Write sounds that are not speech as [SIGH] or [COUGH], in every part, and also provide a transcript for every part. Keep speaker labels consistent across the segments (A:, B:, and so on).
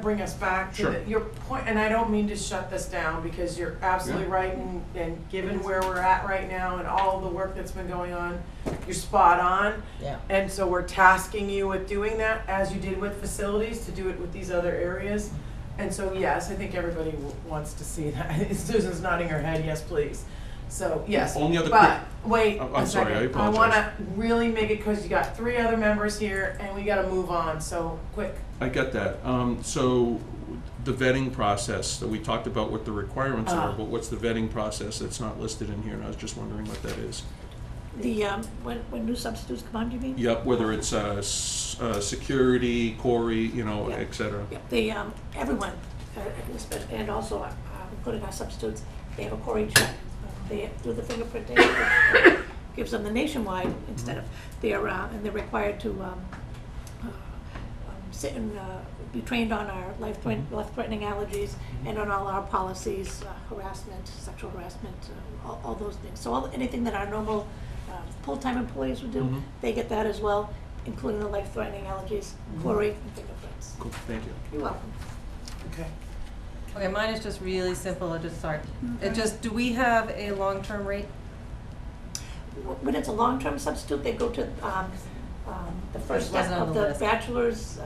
A: bring us back to
B: Sure.
A: the- your point, and I don't mean to shut this down, because you're absolutely
B: Yeah.
A: right, and, and given where we're at right now and all the work that's been going on, you're spot on.
C: Yeah.
A: And so we're tasking you with doing that, as you did with facilities, to do it with these other areas. And so, yes, I think everybody w- wants to see that. [LAUGHS] Susan's nodding her head, yes, please. So, yes.
B: Only other Oh,
A: But, wait
B: I'm-
A: a
B: I'm sorry, I
A: second. I
B: apologize.
A: wanna really make it, cause you got three other members here, and we gotta move on, so, quick.
B: I get that. Um, so the vetting process, that we talked about what the requirements are,
A: Ah.
B: but what's the vetting process that's not listed in here? And I was just wondering what that is.
D: The, um, when, when new substitutes come on, do you mean?
B: Yep, whether it's, uh, s- uh, security, Corey, you know,
D: Yeah.
B: et cetera.
D: Yeah, They, um, everyone, uh, and also, uh, including our substitutes, they have a Cory check. uh, They do the fingerprinting, which gives them the nationwide instead of, they are, uh, and they're required to, um, uh, um, sit and, uh, be trained on our life threatening,
B: Mhm.
D: life threatening allergies and on all our policies, uh, harassment, sexual harassment, uh, all, all those things. So all, anything that our normal, uh, full-time employees would do,
B: Mhm.
D: they get that as well, including the life threatening allergies, Cory and fingerprints.
B: Cool, thank you.
D: You're welcome.
A: Okay.
C: Okay, mine is just really simple, it just, sorry. It just, do we have a long-term rate?
D: When it's a long-term substitute, they go to um, um, the first
C: Which
D: step
C: wasn't on
D: of
C: the
D: the
C: list.
D: bachelor's, um,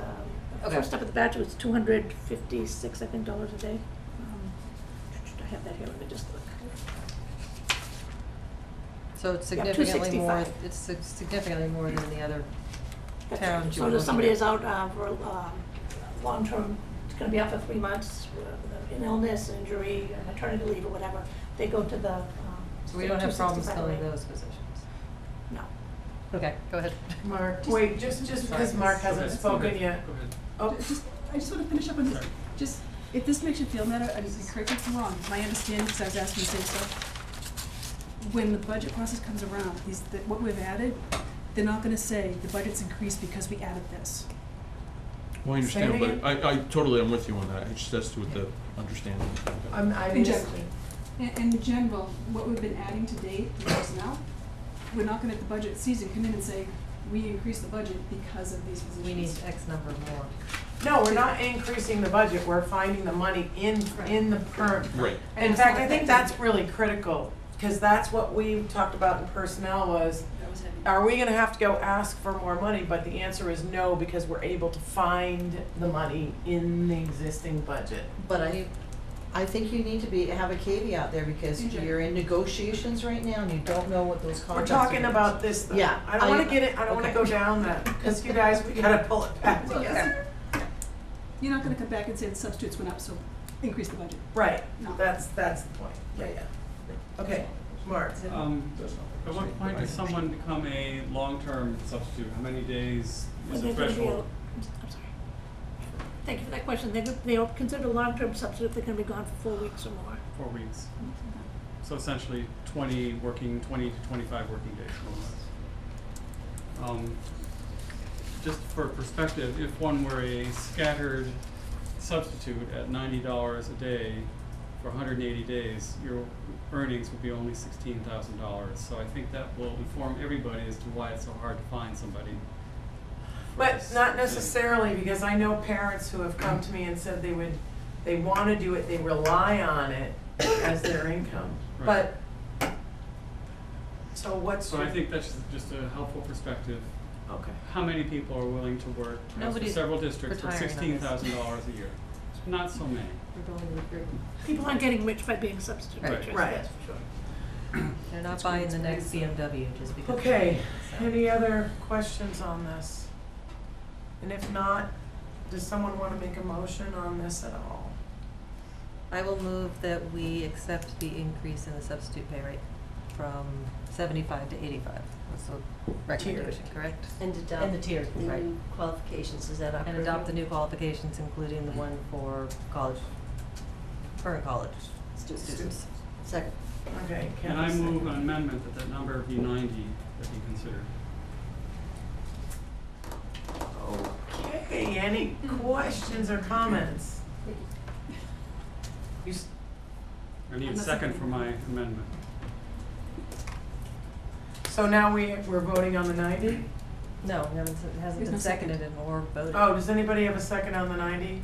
D: the
C: Okay.
D: first step of the bachelor is two hundred fifty-six, I think, dollars a day. Um, I have that here, let me just look.
C: So it's
D: Yeah,
C: significantly more,
D: 265.
C: it's sig- significantly more than the other.
D: That's-
C: Town, do you
D: So
C: want
D: if
C: to-
D: somebody is out uh, for um, long-term, it's gonna be out for three months, uh, an illness, injury, maternity leave or whatever, they go to the. um,
C: So we don't have problems
D: 265
C: filling
D: rate.
C: those positions.
D: No.
C: Okay, go ahead. [LAUGHS]
A: Mark, wait, just, just because
C: Sorry.
A: Mark
E: Okay,
A: hasn't
E: that's
A: spoken
E: okay.
A: yet.
E: Go ahead.
A: Oh,
F: Just, I just want to finish up on this, just, if this makes you feel better, I just, correct me if I'm wrong, my understanding, because I was asking the same stuff. When the budget process comes around, these, the- what we've added, they're not gonna say, the budget's increased because we added this.
B: Well, I
A: Say it
B: understand,
A: again.
B: but I, I totally am with you on that. It's just that's with the understanding.
A: I'm, I mean, just-
F: Injection. In, in general, what we've been adding to date, the personnel, we're not gonna at the budget season come in and say, we increased the budget because of these positions.
C: We need X number more.
A: no, we're not increasing the budget, we're finding the money in, in the current.
B: Right.
A: In fact, I think that's really critical, because that's what we talked about in personnel was,
F: That was heavy.
A: are we gonna have to go ask for more money? But the answer is no, because we're able to find the money in the existing budget.
G: But I, I think you need to be, have a caveat there because
F: Mhm.
G: you're in negotiations right now and you don't know what those
A: We're
G: contracts are.
A: talking about this, though.
G: Yeah,
A: I don't wanna
G: I-
A: get it, I don't wanna
G: okay.
A: go down that, because you guys, we gotta pull it back
F: [LAUGHS] Well,
A: together.
F: You're not gonna come back and say the substitutes went up, so increase the budget.
A: Right,
F: No.
A: that's, that's the point, yeah, yeah. Okay, Mark,
E: Um, at
B: But
E: what point does someone become a long-term substitute? How many days
D: Well,
E: is the
D: they're gonna be
E: threshold?
D: a- I'm sorry. Thank you for that question. They, they are considered a long-term substitute if they're gonna be gone for four weeks or more.
E: Four weeks.
D: Mm-hmm.
E: So essentially twenty working, twenty to twenty-five working days, more or less. Um, just for perspective, if one were a scattered substitute at ninety dollars a day for hundred and eighty days, your earnings would be only sixteen thousand dollars. So I think that will inform everybody as to why it's so hard to find somebody. for
A: But
E: this
A: not
E: thing.
A: necessarily, because I know parents who have come to me and said they would, they wanna do it, they rely on it as their income,
E: Right.
A: but. So what's
E: So
A: your?
E: I think that's just- just a helpful perspective
A: Okay.
E: how many people are willing to work in
C: Nobody's
E: several districts for
C: retiring
E: sixteen
C: on this.
E: thousand dollars a year? Not so many.
C: We're building a group.
D: People aren't getting rich by being substitute
C: Right.
D: teachers,
A: Right.
D: that's for sure.
C: They're not buying the next BMW just because.
A: Okay,
C: So-
A: any other questions on this? And if not, does someone wanna make a motion on this at all?
C: I will move that we accept the increase in the substitute pay rate from seventy-five to eighty-five. That's the recommendation, correct?
H: And adopt.
C: And the tier,
H: the
C: right.
H: new qualifications, is that up?
C: And adopt the new qualifications, including the one for college, current college students.
H: Second.
A: Okay, Kevin.
E: And I move an amendment that that number be ninety that be considered.
A: Okay, any questions or comments? You, s-
E: I need a
F: Unless
E: second
F: somebody-
E: for my amendment.
A: so now we, we're voting on the ninety?
C: No, it hasn't, it hasn't
F: There's
C: been
F: no second.
C: seconded and or voted.
A: Oh, does anybody have a second on the ninety?